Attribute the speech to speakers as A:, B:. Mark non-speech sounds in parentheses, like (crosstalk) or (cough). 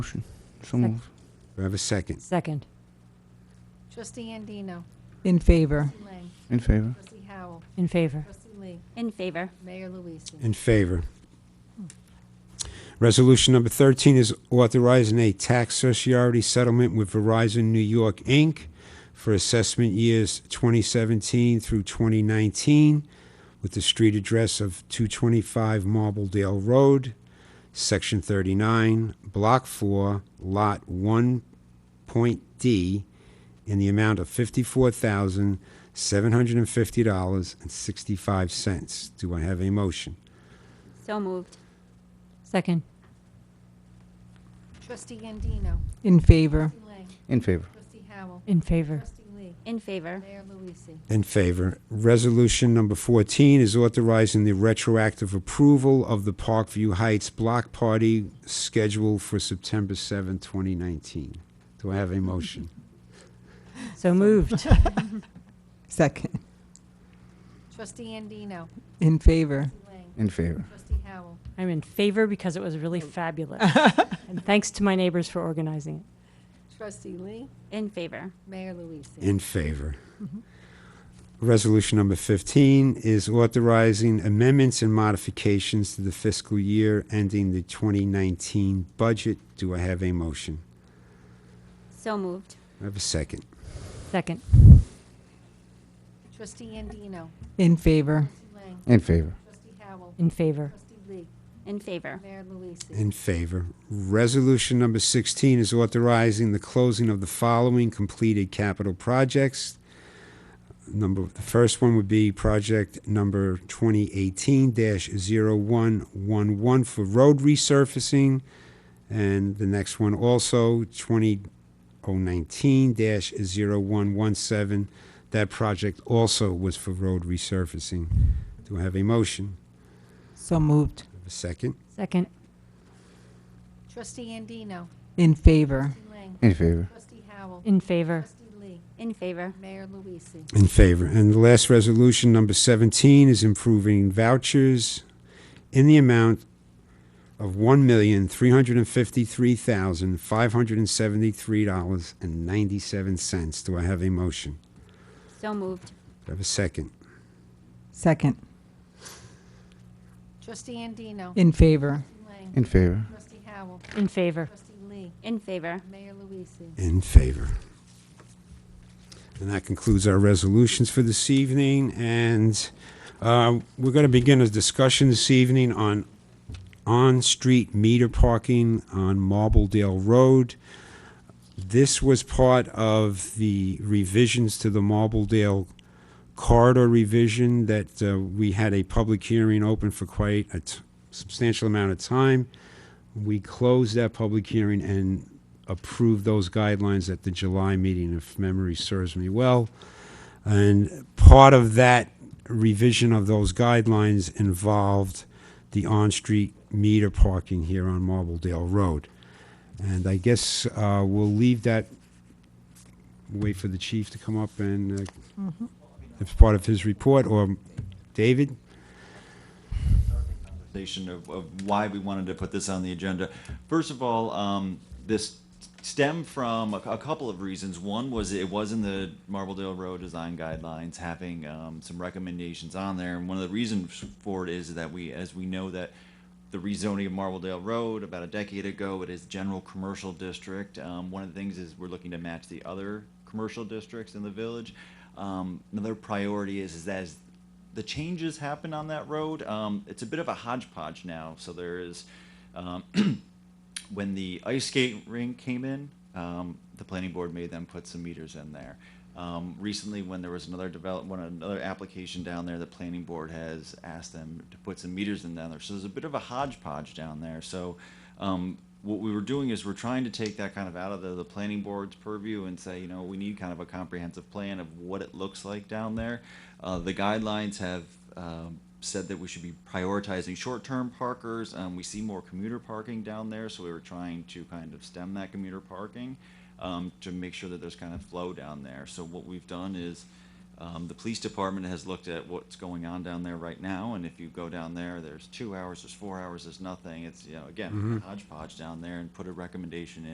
A: Motion. So moved.
B: Do I have a second?
C: Second.
D: Trustee Andino.
E: In favor.
D: Trustee Lang.
A: In favor.
D: Trustee Howell.
C: In favor.
D: Trustee Lee.
F: In favor.
D: Mayor Luise.
B: In favor. Resolution number 13 is authorizing a tax sociarity settlement with Verizon New York, Inc. for assessment years 2017 through 2019 with the street address of 225 Marbledale Road, Section 39, Block 4, Lot 1. Point D in the amount of fifty-four thousand, seven hundred and fifty dollars and sixty-five cents. Do I have a motion?
F: So moved.
C: Second.
D: Trustee Andino.
E: In favor.
D: Trustee Lang.
A: In favor.
D: Trustee Howell.
C: In favor.
D: Trustee Lee.
F: In favor.
D: Mayor Luise.
B: In favor. Resolution number 14 is authorizing the retroactive approval of the Parkview Heights Block Party scheduled for September 7, 2019. Do I have a motion?
C: So moved.
E: Second.
D: Trustee Andino.
E: In favor.
D: Trustee Lang.
A: In favor.
D: Trustee Howell.
C: I'm in favor because it was
E: (laughs)
C: really fabulous. And thanks to my neighbors for organizing it.
D: Trustee Lee.
F: In favor.
D: Mayor Luise.
B: In favor. Resolution number 15 is authorizing amendments and modifications to the fiscal year ending the 2019 budget. Do I have a motion?
F: So moved.
B: I have a second.
C: Second.
D: Trustee Andino.
E: In favor.
D: Trustee Lang.
A: In favor.
D: Trustee Howell.
C: In favor.
D: Trustee Lee.
F: In favor.
D: Mayor Luise.
B: In favor. Resolution number 16 is authorizing the closing of the following completed capital projects. Number, the first one would be project number 2018-0111 for road resurfacing. And the next one also, 2019-0117. That project also was for road resurfacing. Do I have a motion?
E: So moved.
B: Have a second?
C: Second.
D: Trustee Andino.
E: In favor.
D: Trustee Lang.
A: In favor.
D: Trustee Howell.
C: In favor.
D: Trustee Lee.
F: In favor.
D: Mayor Luise.
B: In favor. And the last resolution, number 17, is improving vouchers in the amount of $1,353,573.97. Do I have a motion?
F: So moved.
B: Do I have a second?
E: Second.
D: Trustee Andino.
E: In favor.
D: Trustee Lang.
A: In favor.
D: Trustee Howell.
C: In favor.
D: Trustee Lee.
F: In favor.
D: Mayor Luise.
B: In favor. And that concludes our resolutions for this evening, and uh, we're going to begin a discussion this evening on on-street meter parking on Marbledale Road. This was part of the revisions to the Marbledale corridor revision that uh, we had a public hearing open for quite a t- substantial amount of time. We closed that public hearing and approved those guidelines at the July meeting, if memory serves me well. And part of that revision of those guidelines involved the on-street meter parking here on Marbledale Road. And I guess uh, we'll leave that, wait for the chief to come up and, uh, it's part of his report, or David?
G: conversation of, of why we wanted to put this on the agenda. First of all, um, this stemmed from a, a couple of reasons. One was it was in the Marbledale Road Design Guidelines, having um, some recommendations on there. And one of the reasons for it is that we, as we know that the rezoning of Marbledale Road about a decade ago, it is general commercial district. Um, one of the things is we're looking to match the other commercial districts in the village. Um, another priority is, is that as the changes happen on that road, um, it's a bit of a hodgepodge now. So there is, um, when the ice skate rink came in, um, the planning board made them put some meters in there. Um, recently, when there was another develop, when another application down there, the planning board has asked them to put some meters in down there. So there's a bit of a hodgepodge down there. So um, what we were doing is we're trying to take that kind of out of the, the planning board's purview and say, you know, we need kind of a comprehensive plan of what it looks like down there. Uh, the guidelines have um, said that we should be prioritizing short-term parkers. Um, we see more commuter parking down there, so we were trying to kind of stem that commuter parking um, to make sure that there's kind of flow down there. So what we've done is um, Um, the police department has looked at what's going on down there right now, and if you go down there, there's two hours, there's four hours, there's nothing. It's you know again hodgepodge down there, and put a recommendation in.